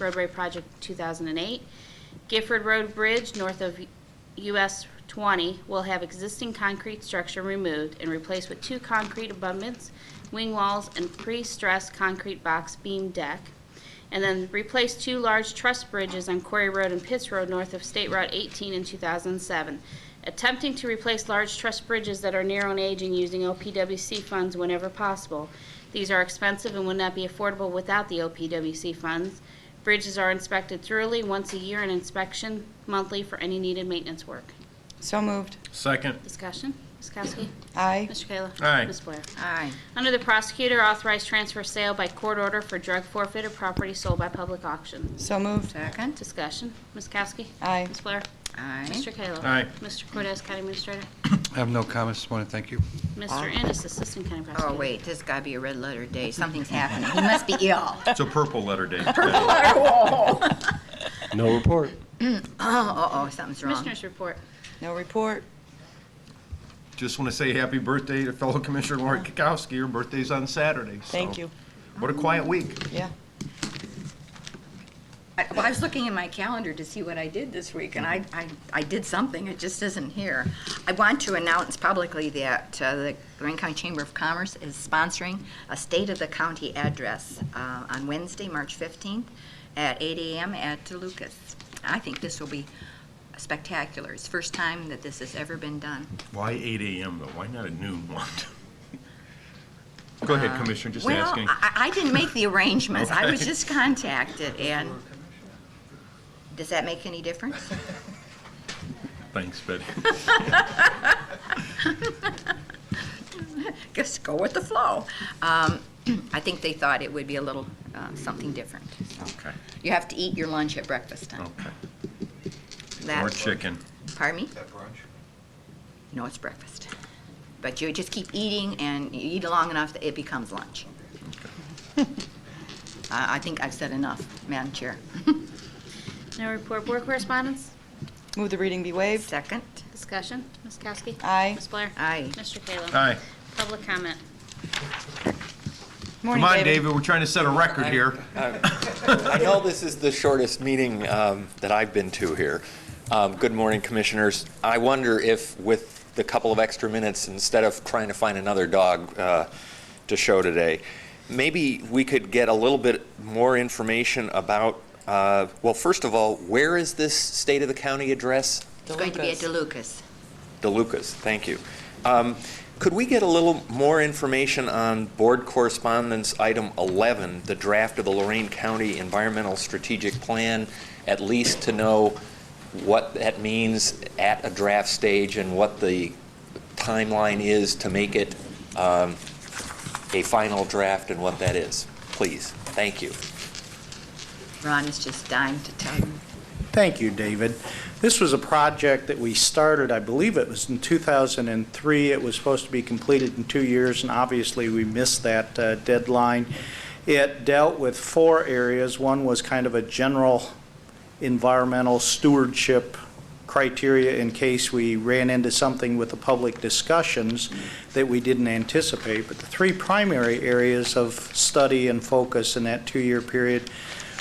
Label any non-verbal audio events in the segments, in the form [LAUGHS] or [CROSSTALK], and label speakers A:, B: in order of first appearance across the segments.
A: roadway project 2008. Gifford Road Bridge north of US 20 will have existing concrete structure removed and replaced with two concrete abutments, wing walls, and pre-stressed concrete box beam deck. And then replace two large truss bridges on Quarry Road and Pitts Road north of State Route 18 in 2007. Attempting to replace large truss bridges that are narrow in age and using OPWC funds whenever possible. These are expensive and would not be affordable without the OPWC funds. Bridges are inspected thoroughly once a year and inspection monthly for any needed maintenance work.
B: So moved.
C: Second.
A: Discussion, Ms. Kowski?
B: Aye.
A: Mr. Kayla?
C: Aye.
A: Ms. Blair?
D: Aye.
A: Under the prosecutor, authorized transfer sale by court order for drug forfeited property sold by public auction.
B: So moved.
D: Second.
A: Discussion, Ms. Kowski?
B: Aye.
A: Ms. Blair?
D: Aye.
A: Mr. Kayla?
C: Aye.
A: Mr. Cortez, County Administrator?
E: I have no comments this morning, thank you.
A: Mr. Ennis, Assistant County Prosecutor?
D: Oh, wait, this has got to be a red letter day. Something's happening. He must be ill. [LAUGHS]
C: It's a purple letter day.
F: No report.
D: [CLEARS THROAT] Oh, uh-oh, something's wrong.
A: Commissioners report.
B: No report.
C: Just want to say happy birthday to fellow Commissioner Lori Kukowski. Her birthday's on Saturday. so-
B: Thank you.
C: What a quiet week.
B: Yeah.
D: I- Well, I was looking in my calendar to see what I did this week, and I, I, I did something, it just isn't here. I want to announce publicly that uh, the Lorraine County Chamber of Commerce is sponsoring a State of the County address uh, on Wednesday, March 15th, at 8 a.m. at DeLucas. I think this will be spectacular. It's the first time that this has ever been done.
C: Why 8 AM though? Why not a noon one? Go ahead, Commissioner, just
D: Well,
C: asking.
D: I, I didn't make the arrangements. I was
C: Okay.
D: just contacted, and does that make any difference?
C: Thanks, Betty.
D: Just go with the flow. Um, [CLEARS THROAT] I think they thought it would be a little uh, something different.
C: Okay,
D: You have to eat your lunch at breakfast time.
C: okay.
D: That-
C: More chicken.
D: Pardon me? No, it's breakfast. But you just keep eating, and you eat long enough that it becomes lunch. I I think I've said enough, Madam Chair.
A: No report. Board correspondence?
B: Move the reading be waived.
D: Second?
A: Discussion, Ms. Kowski?
B: Aye.
A: Ms. Blair?
D: Aye.
A: Mr. Kayla?
C: Aye.
A: Public comment.
B: Morning,
C: Come on, David, we're trying to set a record here.
F: I know this is the shortest meeting um, that I've been to here. Um, Good morning, Commissioners. I wonder if with the couple of extra minutes, instead of trying to find another dog uh, to show today, maybe we could get a little bit more information about, uh, well, first of all, where is this State of the County address?
D: It's going to be at
B: DeLucas.
D: DeLucas.
F: DeLucas, thank you. Um, Could we get a little more information on Board Correspondence Item 11, the draft of the Lorraine County Environmental Strategic Plan, at least to know what that means at a draft stage and what the timeline is to make it um, a final draft and what that is? Please, thank you.
D: Ron is just dying to tell you.
G: Thank you, David. This was a project that we started, I believe it was in 2003. It was supposed to be completed in two years, and obviously, we missed that uh, deadline. It dealt with four areas. One was kind of a general environmental stewardship criteria in case we ran into something with the public discussions that we didn't anticipate. But the three primary areas of study and focus in that two-year period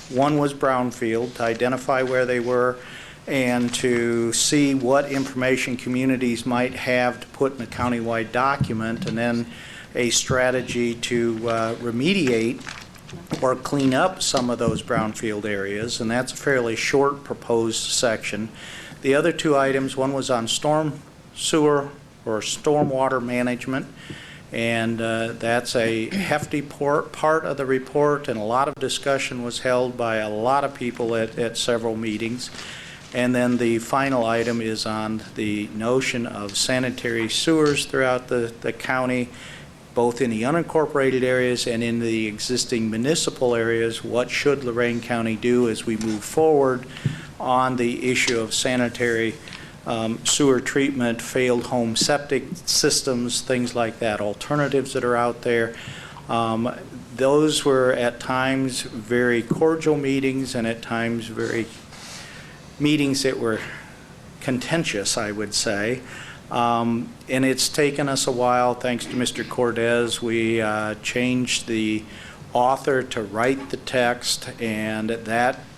G: one was brownfield, to identify where they were and to see what information communities might have to put in a countywide document, and then a strategy to uh, remediate or clean up some of those brownfield areas, and that's a fairly short proposed section. The other two items, one was on storm sewer or stormwater management, and uh, that's a hefty por- part of the report, and a lot of discussion was held by a lot of people at at several meetings. And then the final item is on the notion of sanitary sewers throughout the the county, both in the unincorporated areas and in the existing municipal areas. What should Lorraine County do as we move forward on the issue of sanitary um, sewer treatment, failed home septic systems, things like that, alternatives that are out there? Um, Those were at times very cordial meetings and at times very, meetings that were contentious, I would say. Um, And it's taken us a while, thanks to Mr. Cordez, we uh, changed the author to write the text, and that